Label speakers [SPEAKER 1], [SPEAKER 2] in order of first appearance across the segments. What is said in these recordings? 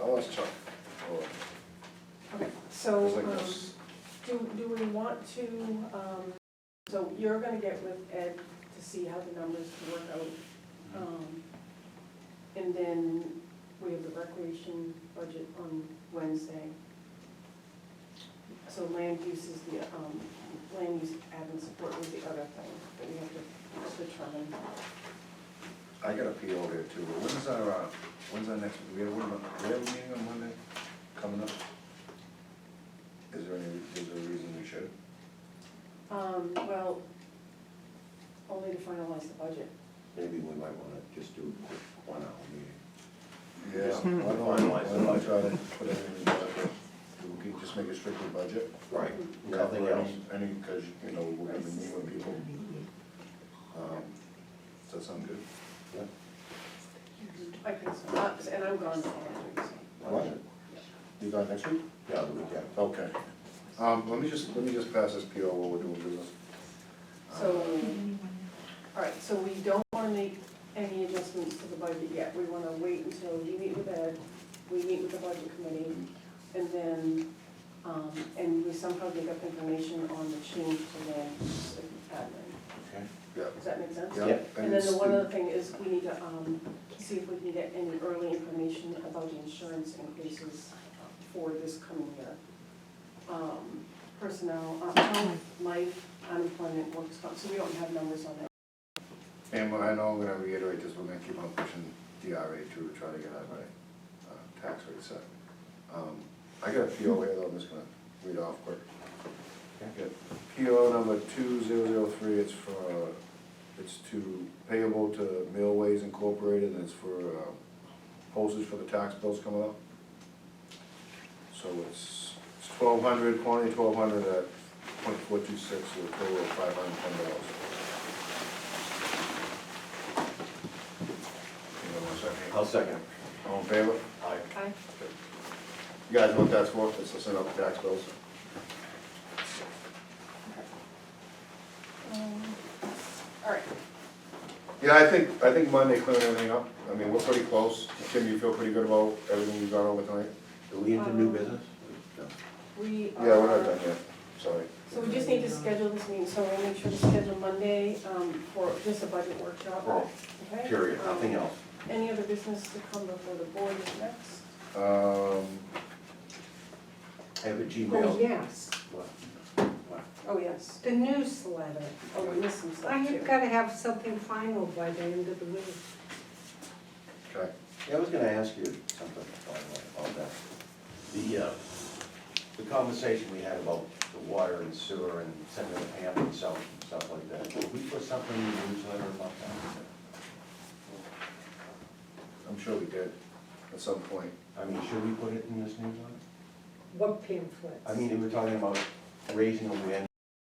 [SPEAKER 1] I'll ask Chuck. or-
[SPEAKER 2] Okay, so,
[SPEAKER 1] 'cause like
[SPEAKER 2] um,
[SPEAKER 1] that's-
[SPEAKER 2] do, do we want to, um, so you're gonna get with Ed to see how the numbers work out. Um, And then we have the recreation budget on Wednesday. So land use is the, um, land use admin support was the other thing that we have to determine.
[SPEAKER 1] I got a PO there too, but when's our, uh, when's our next, we have, one on- we have a meeting on Monday coming up? Is there any, is there a reason we should?
[SPEAKER 2] Um, well, only to finalize the budget.
[SPEAKER 3] Maybe we might wanna just do a quick one hour meeting.
[SPEAKER 1] Yeah,
[SPEAKER 3] Just
[SPEAKER 1] why don't, why
[SPEAKER 3] finalize the
[SPEAKER 1] don't we
[SPEAKER 3] budget.
[SPEAKER 1] try to put everything in the budget? We can just make it strictly budget.
[SPEAKER 3] Right,
[SPEAKER 1] cover
[SPEAKER 3] nothing
[SPEAKER 1] any-
[SPEAKER 3] else.
[SPEAKER 1] Any, because, you know, we're gonna be moving people. Um, Does that sound good?
[SPEAKER 2] I think so, Uh, and I'm gone for next week, so.
[SPEAKER 1] What? You got next week?
[SPEAKER 3] Yeah, the weekend.
[SPEAKER 1] Okay. Um, let me just, let me just pass this PO while we're doing business. Um,
[SPEAKER 2] So, all right, so we don't wanna make any adjustments to the budget yet, we wanna wait until you meet with Ed, we meet with the budget committee, and then, um, and we somehow get up information on the change to land use admin.
[SPEAKER 3] Okay.
[SPEAKER 1] Yeah.
[SPEAKER 2] Does that make sense?
[SPEAKER 1] Yeah.
[SPEAKER 3] Yeah.
[SPEAKER 2] And then the one
[SPEAKER 1] it's-
[SPEAKER 2] other thing is, we need to, um, see if we can get any early information about the insurance increases for this coming year. Um, personnel, uh, health, life, unemployment, works comp, so we don't have numbers on that.
[SPEAKER 1] And I know I'm gonna reiterate this, we're gonna keep on pushing DRA to try to get our, uh, tax rate set. Um, I got a PO here, though, I'm just gonna read off quick. I got PO number two zero zero three, it's for, uh, it's to payable to Millways Incorporated, and it's for, uh, postage for the tax bills coming up. So it's, it's twelve hundred, quantity twelve hundred at point four two six, so a total of five hundred and ten dollars. Hang on one second.
[SPEAKER 3] I'll second.
[SPEAKER 1] All in favor?
[SPEAKER 3] Aye.
[SPEAKER 2] Aye.
[SPEAKER 1] You guys know what that's for, it's to send out the tax bills.
[SPEAKER 2] Um, All right,
[SPEAKER 1] Yeah, I think, I think Monday cleared everything up, I mean, we're pretty close, Tim, you feel pretty good about everything we've gone over tonight?
[SPEAKER 3] Do we into new business?
[SPEAKER 2] we are.
[SPEAKER 1] Yeah, we're not done yet, sorry.
[SPEAKER 2] So we just need to schedule this meeting, so we'll make sure to schedule Monday, um, for just a budget workshop,
[SPEAKER 3] Well,
[SPEAKER 2] okay?
[SPEAKER 3] period,
[SPEAKER 2] Um,
[SPEAKER 3] nothing else.
[SPEAKER 2] Any other business to come before the board is next?
[SPEAKER 1] Um,
[SPEAKER 3] I have a
[SPEAKER 4] Oh,
[SPEAKER 3] Gmail.
[SPEAKER 4] yes,
[SPEAKER 3] What? What?
[SPEAKER 2] Oh, yes,
[SPEAKER 4] the newsletter.
[SPEAKER 2] oh, we missed some
[SPEAKER 4] I
[SPEAKER 2] stuff too.
[SPEAKER 4] have gotta have something final by the end of the week.
[SPEAKER 1] okay,
[SPEAKER 3] Yeah, I was gonna ask you something by the way, about that. The, uh, the conversation we had about the water and sewer and sending the pamphlets out and stuff like that. Did we put something in the newsletter about that?
[SPEAKER 1] I'm sure we did, at some point.
[SPEAKER 3] I mean, should we put it in this newsletter?
[SPEAKER 4] What pamphlets?
[SPEAKER 3] I mean, we were talking about raising awareness,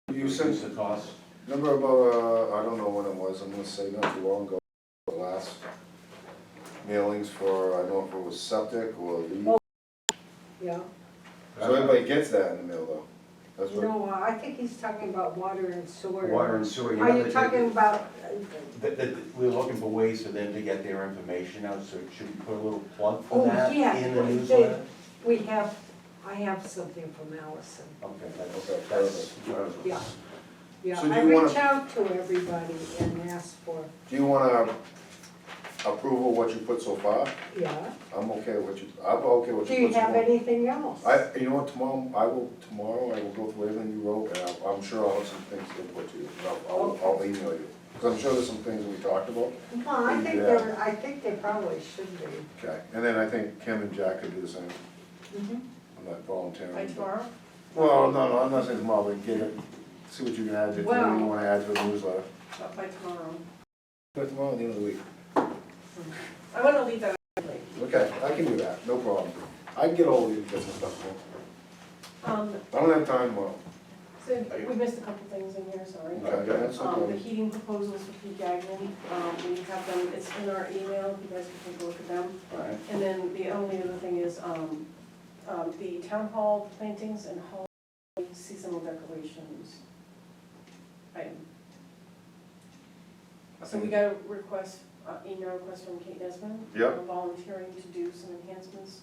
[SPEAKER 1] You
[SPEAKER 3] reduce
[SPEAKER 1] sent,
[SPEAKER 3] the cost.
[SPEAKER 1] remember about, uh, I don't know when it was, I'm gonna say not too long ago, the last mailings for, I don't know if it was septic or leak.
[SPEAKER 4] Yeah,
[SPEAKER 1] So everybody gets that in the mail though, that's what.
[SPEAKER 4] no, I think he's talking about water and sewer.
[SPEAKER 3] Water and sewer, you know.
[SPEAKER 4] Are you
[SPEAKER 3] that-
[SPEAKER 4] talking about,
[SPEAKER 3] That, that, we're looking for ways for them to get their information out, so should we put a little plug for
[SPEAKER 4] Oh,
[SPEAKER 3] that
[SPEAKER 4] yeah,
[SPEAKER 3] in the
[SPEAKER 4] they-
[SPEAKER 3] newsletter?
[SPEAKER 4] we have, I have something from Allison,
[SPEAKER 3] Okay, that's,
[SPEAKER 1] Okay,
[SPEAKER 3] that's.
[SPEAKER 4] yeah. Yeah,
[SPEAKER 1] So do
[SPEAKER 4] I
[SPEAKER 1] you wanna-
[SPEAKER 4] reach out to everybody and ask for,
[SPEAKER 1] Do you wanna approve of what you put so far?
[SPEAKER 4] yeah,
[SPEAKER 1] I'm okay with what you, I'm okay with what
[SPEAKER 4] do
[SPEAKER 1] you
[SPEAKER 4] you
[SPEAKER 1] put
[SPEAKER 4] have
[SPEAKER 1] tomorrow.
[SPEAKER 4] anything else?
[SPEAKER 1] I, you know what, tomorrow, I will, tomorrow, I will go through everything you wrote, and I'm, I'm sure I'll have some things to put to you, and I'll- I'll, I'll email you. Cause I'm sure there's some things we talked about,
[SPEAKER 4] Well, I think
[SPEAKER 1] Yeah.
[SPEAKER 4] there, I think there probably should be.
[SPEAKER 1] okay, and then I think Kim and Jack could do the same,
[SPEAKER 4] Mhm.
[SPEAKER 1] I'm not volunteering.
[SPEAKER 2] By
[SPEAKER 1] but-
[SPEAKER 2] tomorrow?
[SPEAKER 1] Well, no, no, I'm not saying tomorrow, but get it, see what you can add, to- what you
[SPEAKER 4] Well-
[SPEAKER 1] wanna add to the newsletter.
[SPEAKER 2] Not by tomorrow.
[SPEAKER 1] But tomorrow, the end of the week,
[SPEAKER 2] I wanna leave that out late.
[SPEAKER 1] okay, I can do that, no problem, I can get all of you, get some stuff, done.
[SPEAKER 2] Um,
[SPEAKER 1] I don't have time tomorrow.
[SPEAKER 2] so we missed a couple things in here, sorry.
[SPEAKER 1] Okay, that's
[SPEAKER 2] Um, the
[SPEAKER 1] okay.
[SPEAKER 2] heating proposals for Pete Gagnon, um, we have them, it's in our email, you guys can take a look at them.
[SPEAKER 3] Alright,
[SPEAKER 2] And then the only other thing is, um, um, the town hall plantings and hall seasonal decorations. item. So we got a request, uh, email request from Kate Nesman.
[SPEAKER 1] Yep.
[SPEAKER 2] Volunteering to do some enhancements